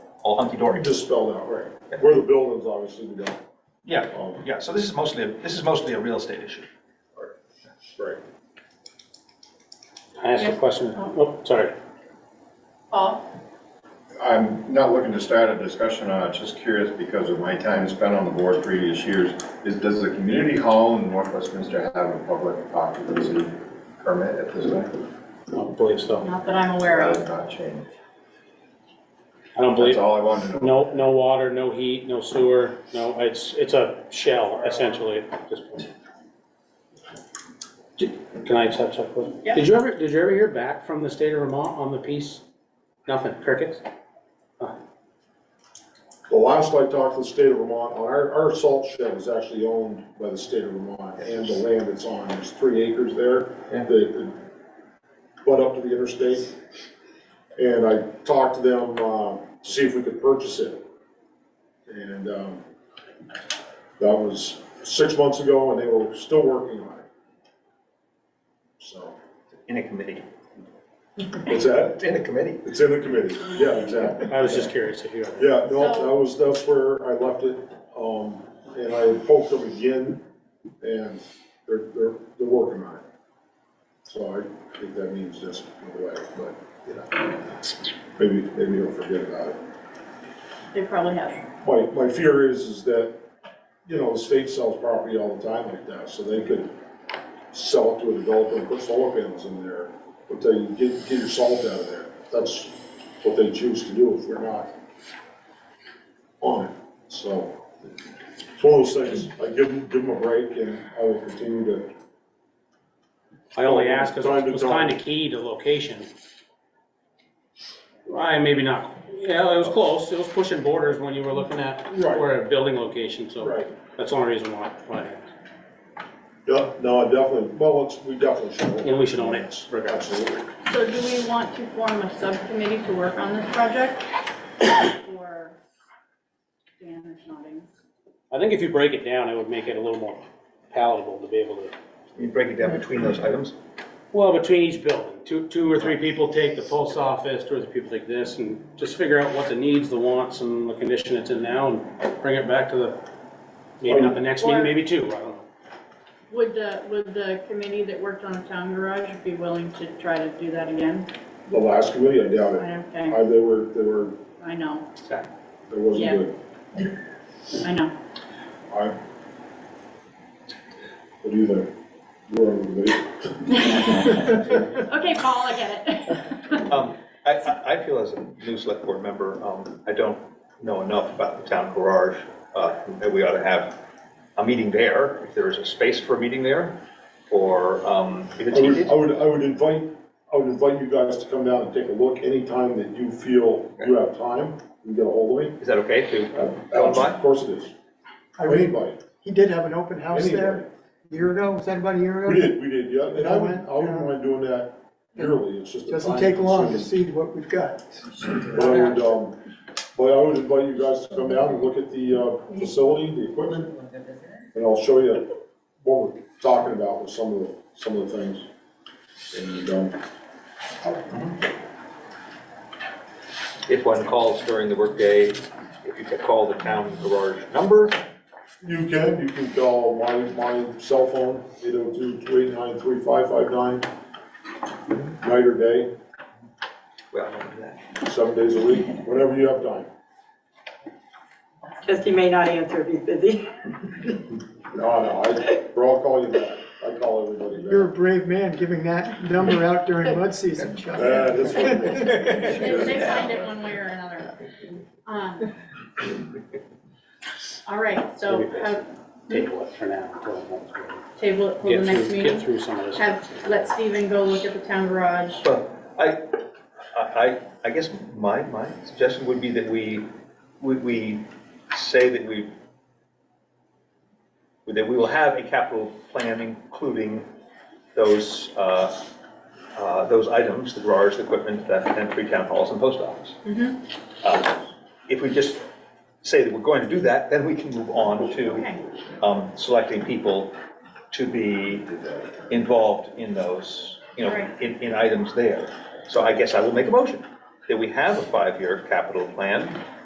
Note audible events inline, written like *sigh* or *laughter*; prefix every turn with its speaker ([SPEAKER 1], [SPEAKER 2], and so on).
[SPEAKER 1] all hunky-dory.
[SPEAKER 2] Just spelled out, right. Where the buildings, obviously, we don't.
[SPEAKER 1] Yeah,
[SPEAKER 2] um,
[SPEAKER 1] yeah, so this is mostly, a- this is mostly a real estate issue.
[SPEAKER 2] Right.
[SPEAKER 3] I asked a
[SPEAKER 4] Yes.
[SPEAKER 3] question, oh, sorry.
[SPEAKER 4] Paul?
[SPEAKER 5] I'm not looking to start a discussion on it, just curious because of my time spent on the board previous years. Is, does the community hall in North Westminster have a public occupancy permit at this time?
[SPEAKER 3] I don't believe so.
[SPEAKER 4] Not that I'm aware
[SPEAKER 5] That
[SPEAKER 4] of.
[SPEAKER 5] has not changed.
[SPEAKER 3] I don't believe,
[SPEAKER 5] That's all I wanted to know.
[SPEAKER 3] no, no water, no heat, no sewer, no, it's, it's a shell essentially at this point. Did- Can I touch up with?
[SPEAKER 4] Yeah.
[SPEAKER 3] Did you ever, did you ever hear back from the state of Vermont on the piece? Nothing, crickets?
[SPEAKER 2] The last I talked to the state of Vermont, our, our salt shed is actually owned by the state of Vermont, and the land it's on, there's three acres there.
[SPEAKER 1] Yeah.
[SPEAKER 2] They could butt up to the interstate. And I talked to them, uh, to see if we could purchase it. And, um, that was six months ago, and they were still working on it. So,
[SPEAKER 1] In a committee.
[SPEAKER 2] what's that?
[SPEAKER 1] It's in a committee.
[SPEAKER 2] It's in the committee, yeah, exactly.
[SPEAKER 3] I was just curious if you ever.
[SPEAKER 2] Yeah, no,
[SPEAKER 4] So-
[SPEAKER 2] that was, that's where I left it, um, and I poked them again, and they're, they're, they're working on it. So I think that means just go away, but, you know, maybe, maybe he'll forget about it.
[SPEAKER 4] They probably have.
[SPEAKER 2] My, my fear is, is that, you know, the state sells property all the time like that, so they could sell it to a developer and put solar panels in there, but they get, get your salt out of there. That's what they choose to do if we're not on it, so. It's one of those things, I give them, give them a break and I will continue to,
[SPEAKER 3] I only asked because
[SPEAKER 2] Time
[SPEAKER 3] it
[SPEAKER 2] to
[SPEAKER 3] was
[SPEAKER 2] tell.
[SPEAKER 3] kind of key to location. I, maybe not, yeah, it was close, it was pushing borders when you were looking at
[SPEAKER 2] Right.
[SPEAKER 3] where a building location, so
[SPEAKER 2] right,
[SPEAKER 3] that's the only reason why, why.
[SPEAKER 2] yeah, no, I definitely, well, it's, we definitely should.
[SPEAKER 3] And we should own it, regardless.
[SPEAKER 2] Absolutely.
[SPEAKER 4] So do we want to form a subcommittee to work on this project? Or Dan is nodding.
[SPEAKER 3] I think if you break it down, it would make it a little more palatable to be able to,
[SPEAKER 1] You break it down between those items.
[SPEAKER 3] well, between each building, two, two or three people take the post office, two or three people take this, and just figure out what the needs, the wants, and the condition it's in now, and bring it back to the, maybe not the next meeting, maybe two, I don't know.
[SPEAKER 4] Would the, would the committee that worked on the town garage be willing to try to do that again?
[SPEAKER 2] The last committee, I doubt it.
[SPEAKER 4] Okay,
[SPEAKER 2] I, they were, they were,
[SPEAKER 4] I know,
[SPEAKER 2] it wasn't
[SPEAKER 4] Yeah.
[SPEAKER 2] good.
[SPEAKER 4] I know. *laughs*
[SPEAKER 2] I. What do you think? You're on the lead.
[SPEAKER 4] Okay, Paul, I get it.
[SPEAKER 6] Um, I, I I feel as a new select board member, um, I don't know enough about the town garage, uh, that we ought to have a meeting there, if there is a space for a meeting there, or, um, if it's
[SPEAKER 2] I
[SPEAKER 1] Oh,
[SPEAKER 2] would,
[SPEAKER 6] needed.
[SPEAKER 2] I would, I would invite, I would invite you guys to come down and take a look anytime that you feel you have time, you can get a hold of me.
[SPEAKER 6] Is that okay
[SPEAKER 2] Uh,
[SPEAKER 6] to go by?
[SPEAKER 2] Of course it is.
[SPEAKER 7] I read,
[SPEAKER 2] Anybody,
[SPEAKER 7] he did have an open house
[SPEAKER 2] anybody.
[SPEAKER 7] there a year ago, was that about a year
[SPEAKER 2] We
[SPEAKER 7] ago?
[SPEAKER 2] did, we did, yeah, and I wouldn't, I wouldn't
[SPEAKER 7] Yeah.
[SPEAKER 2] mind doing that yearly, it's just a time.
[SPEAKER 7] Doesn't take long to
[SPEAKER 2] consuming.
[SPEAKER 7] see what we've got.
[SPEAKER 2] But I would, um, but I would invite you guys to come down and look at the, uh, facility, the equipment, and I'll show you what we're talking about with some of the, some of the things. And, um,
[SPEAKER 6] If one calls during the workday, if you could call the town garage number,
[SPEAKER 2] you can, you can call my, my cell phone, 802 289 Night or day,
[SPEAKER 6] well, I don't know that.
[SPEAKER 2] seven days a week, whenever you have time.
[SPEAKER 8] Just he may not answer if he's busy.
[SPEAKER 2] No, no, I, or I'll call you back, I call everybody
[SPEAKER 7] You're a
[SPEAKER 2] back.
[SPEAKER 7] brave man giving that number out during mud season, Chuck.
[SPEAKER 2] Yeah, that's what it is.
[SPEAKER 4] They they find it one way or another. Um, All right, so uh,
[SPEAKER 3] Table it for now. until it wants to-
[SPEAKER 4] table it for
[SPEAKER 3] Get
[SPEAKER 4] the
[SPEAKER 3] through-
[SPEAKER 4] next meeting.
[SPEAKER 3] Get through some of this.
[SPEAKER 4] Have, let Steven go look at the town garage.
[SPEAKER 6] Well, I, I, I- I guess my, my suggestion would be that we, we, we say that we, that we will have a capital plan including those, uh, uh, those items, the garage, the equipment, that, and three town halls and post office.
[SPEAKER 4] Mhm.
[SPEAKER 6] Uh, If we just say that we're going to do that, then we can move on to
[SPEAKER 4] Okay,
[SPEAKER 6] um, selecting people to be involved in those, you know,
[SPEAKER 4] Right.
[SPEAKER 6] in, in items there. So I guess I will make a motion that we have a five-year capital plan